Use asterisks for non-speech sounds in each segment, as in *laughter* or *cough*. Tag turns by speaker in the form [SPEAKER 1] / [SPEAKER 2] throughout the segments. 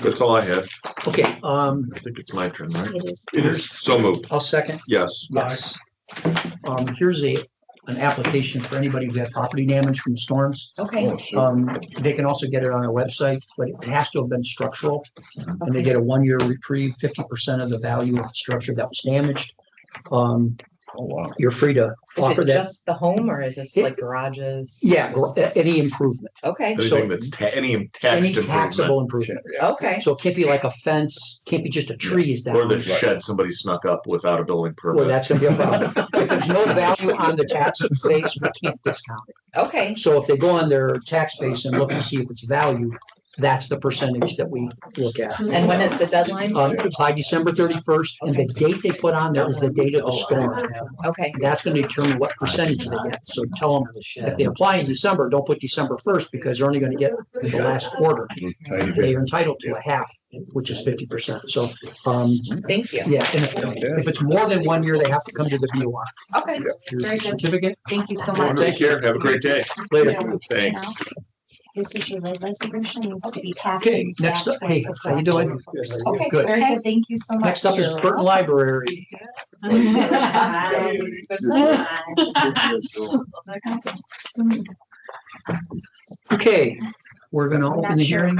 [SPEAKER 1] That's all I had.
[SPEAKER 2] Okay, um,
[SPEAKER 1] I think it's my turn, right?
[SPEAKER 3] It is.
[SPEAKER 1] So moved.
[SPEAKER 2] I'll second,
[SPEAKER 1] Yes.
[SPEAKER 2] yes. Um, here's a, an application for anybody who had property damage from storms.
[SPEAKER 3] Okay,
[SPEAKER 2] Um, they can also get it on our website, but it has to have been structural. And they get a one-year reprieve, fifty percent of the value of the structure that was damaged. Um,
[SPEAKER 4] Oh, wow.
[SPEAKER 2] you're free to
[SPEAKER 3] is
[SPEAKER 2] offer
[SPEAKER 3] it
[SPEAKER 2] that.
[SPEAKER 3] just the home or is this like garages?
[SPEAKER 2] Yeah, gr- a- any improvement,
[SPEAKER 3] Okay,
[SPEAKER 1] Anything that's ta- any
[SPEAKER 2] any
[SPEAKER 1] taxed improvement
[SPEAKER 2] taxable improvement.
[SPEAKER 3] okay,
[SPEAKER 2] So it can't be like a fence, can't be just a tree is down.
[SPEAKER 1] or the shed somebody snuck up without a building
[SPEAKER 2] Well,
[SPEAKER 1] permit.
[SPEAKER 2] that's gonna be a problem. If there's no value on the tax base, we can't discount it.
[SPEAKER 3] okay,
[SPEAKER 2] So if they go on their tax base and look to see if it's value, that's the percentage that we look at.
[SPEAKER 3] and when is the deadline?
[SPEAKER 2] Um, by December thirty-first, and the date they put on there is the date of the storm.
[SPEAKER 3] Okay,
[SPEAKER 2] That's gonna determine what percentage they get. So tell them, if they apply in December, don't put December first, because they're only gonna get the last quarter.
[SPEAKER 4] Tiny bit.
[SPEAKER 2] They are entitled to a half, which is fifty percent. So, um,
[SPEAKER 3] thank you.
[SPEAKER 2] yeah, and if- if it's more than one year, they have to come to the BOR.
[SPEAKER 3] Okay,
[SPEAKER 2] Here's
[SPEAKER 3] Very
[SPEAKER 2] your
[SPEAKER 3] good.
[SPEAKER 2] certificate.
[SPEAKER 3] thank you so much. *laughs*
[SPEAKER 1] Take care. Have a great day.
[SPEAKER 2] Later.
[SPEAKER 1] Thanks.
[SPEAKER 5] This is your resolution needs to be passed.
[SPEAKER 2] Okay, next up, hey, how you doing?
[SPEAKER 3] Okay,
[SPEAKER 2] Good.
[SPEAKER 3] very good.
[SPEAKER 5] Thank you so much.
[SPEAKER 2] Next up is
[SPEAKER 5] *laughs*
[SPEAKER 2] Burton Library. Okay, we're gonna open the hearing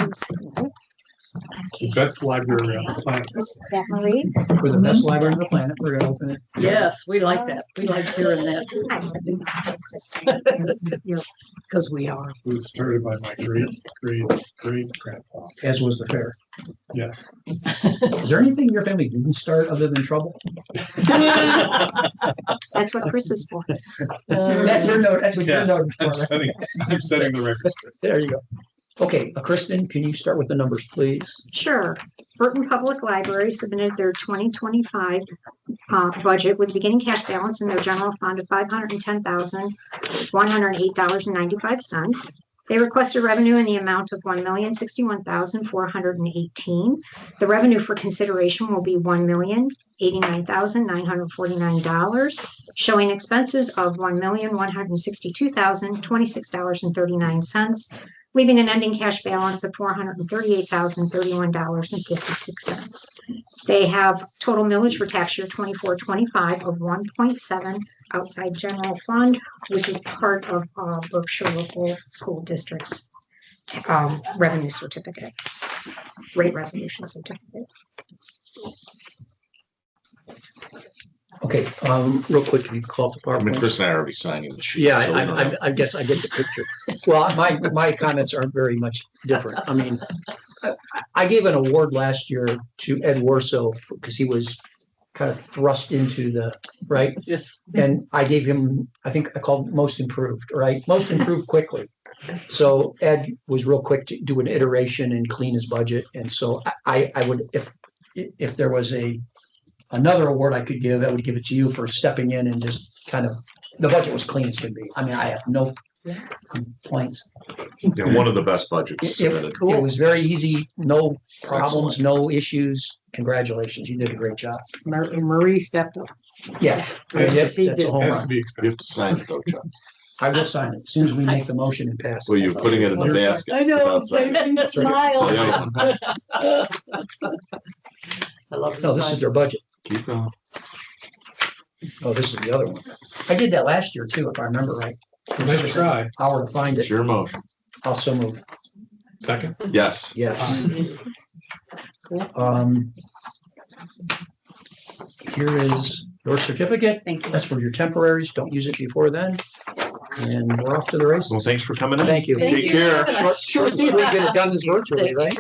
[SPEAKER 6] Best library on uh, the planet.
[SPEAKER 5] Definitely.
[SPEAKER 2] for the best library on the planet. We're gonna open it.
[SPEAKER 7] Yes, we like that. We like hearing that because we are.
[SPEAKER 6] It was started by my great, great, great grandpa.
[SPEAKER 2] As was the fair.
[SPEAKER 6] Yeah.
[SPEAKER 2] Is there anything your family didn't start other than trouble?
[SPEAKER 5] That's what Chris is for.
[SPEAKER 2] That's your note, that's what your
[SPEAKER 6] Yeah.
[SPEAKER 2] note.
[SPEAKER 6] I'm
[SPEAKER 2] for.
[SPEAKER 6] setting, I'm setting the record.
[SPEAKER 2] There you go. Okay, uh, Kristen, can you start with the numbers, please?
[SPEAKER 5] Sure. Burton Public Library submitted their twenty twenty-five uh, budget with beginning cash balance in their general fund of five hundred and ten thousand, one hundred and eight dollars and ninety-five cents. They requested revenue in the amount of one million, sixty-one thousand, four hundred and eighteen. The revenue for consideration will be one million, eighty-nine thousand, nine hundred and forty-nine dollars, showing expenses of one million, one hundred and sixty-two thousand, twenty-six dollars and thirty-nine cents, leaving an ending cash balance of four hundred and thirty-eight thousand, thirty-one dollars and fifty-six cents. They have total millage for tax year twenty-four, twenty-five of one point seven outside general fund, which is part of uh, Berkshire local school district's um, revenue certificate, rate resolution certificate.
[SPEAKER 2] Okay, um, real quick, can you call up the
[SPEAKER 1] I mean,
[SPEAKER 2] PowerPoint?
[SPEAKER 1] Chris and I are already signing the sheet.
[SPEAKER 2] Yeah,
[SPEAKER 1] so uh, we don't
[SPEAKER 2] I,
[SPEAKER 1] have-
[SPEAKER 2] I, I guess I get the picture. Well, my, my comments aren't very much different. I mean, I, I gave an award last year to Ed Warso because he was kind of thrust into the, right?
[SPEAKER 7] Yes.
[SPEAKER 2] And I gave him, I think I called most improved, right? Most improved quickly. So Ed was real quick to do an iteration and clean his budget. And so I- I, I would, if, if there was a, another award I could give, I would give it to you for stepping in and just kind of the budget was clean as could be. I mean, I have no complaints.
[SPEAKER 1] Yeah, one of the best budgets
[SPEAKER 2] It-
[SPEAKER 1] submitted.
[SPEAKER 2] It was very easy, no problems, no issues. Congratulations, you did a great job.
[SPEAKER 7] Mar- Marie stepped up.
[SPEAKER 2] Yeah, I mean, that-
[SPEAKER 7] She
[SPEAKER 2] Oh, that's a
[SPEAKER 7] did.
[SPEAKER 2] home
[SPEAKER 6] Has to
[SPEAKER 2] run.
[SPEAKER 6] be
[SPEAKER 1] You
[SPEAKER 6] expected.
[SPEAKER 1] have to sign it though, Chuck.
[SPEAKER 2] I will sign it as soon as we make the motion and pass.
[SPEAKER 1] Well, you're putting it in the basket.
[SPEAKER 7] I know,
[SPEAKER 1] without signing it.
[SPEAKER 7] they
[SPEAKER 3] *laughs*
[SPEAKER 7] smile.
[SPEAKER 1] Yeah,
[SPEAKER 7] I love
[SPEAKER 2] No, this is their budget.
[SPEAKER 1] Keep going.
[SPEAKER 2] Oh, this is the other one. I did that last year too, if I remember right. It took
[SPEAKER 6] Nice
[SPEAKER 2] us
[SPEAKER 6] try.
[SPEAKER 2] an Hour to find
[SPEAKER 1] It's
[SPEAKER 2] it.
[SPEAKER 1] your motion.
[SPEAKER 2] Also move.
[SPEAKER 6] Second.
[SPEAKER 1] Yes.
[SPEAKER 2] Yes. Um. Here is your certificate.
[SPEAKER 7] Thank you.
[SPEAKER 2] That's for your temporaries. Don't use it before then. And we're off to the races.
[SPEAKER 1] Well, thanks for coming in.
[SPEAKER 2] Thank you.
[SPEAKER 7] Thank
[SPEAKER 1] Take
[SPEAKER 7] you.
[SPEAKER 1] care.
[SPEAKER 2] Short, short, we get it done this virtually, right?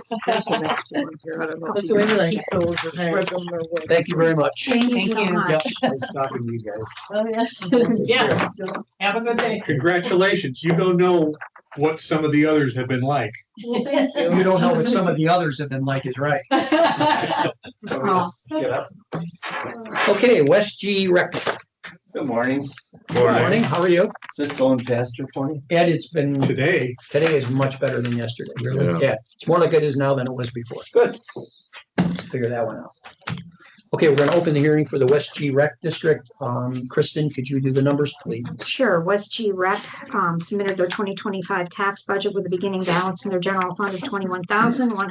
[SPEAKER 2] Thank you very much.
[SPEAKER 5] Thank you
[SPEAKER 3] Thank
[SPEAKER 5] so
[SPEAKER 3] you.
[SPEAKER 5] much.
[SPEAKER 2] Yep, nice talking to you guys.
[SPEAKER 7] Oh, yes. Yeah. Have a good day.
[SPEAKER 6] Congratulations. You don't know what some of the others have been like.
[SPEAKER 2] You don't know what some of the others have been like, is right.
[SPEAKER 3] *laughs*
[SPEAKER 5] Oh,
[SPEAKER 2] Okay, West G Rec.
[SPEAKER 8] Good morning.
[SPEAKER 2] Good morning, how are you?
[SPEAKER 8] Is this going faster for you?
[SPEAKER 2] Ed, it's been,
[SPEAKER 6] Today,
[SPEAKER 2] today is much better than yesterday. Really? Yeah, it's more like it is now than it was before.
[SPEAKER 8] Good.
[SPEAKER 2] Figure that one out. Okay, we're gonna open the hearing for the West G Rec District. Um, Kristen, could you do the numbers, please?
[SPEAKER 5] Sure, West G Rec um, submitted their twenty twenty-five tax budget with a beginning balance in their general fund of twenty-one thousand, one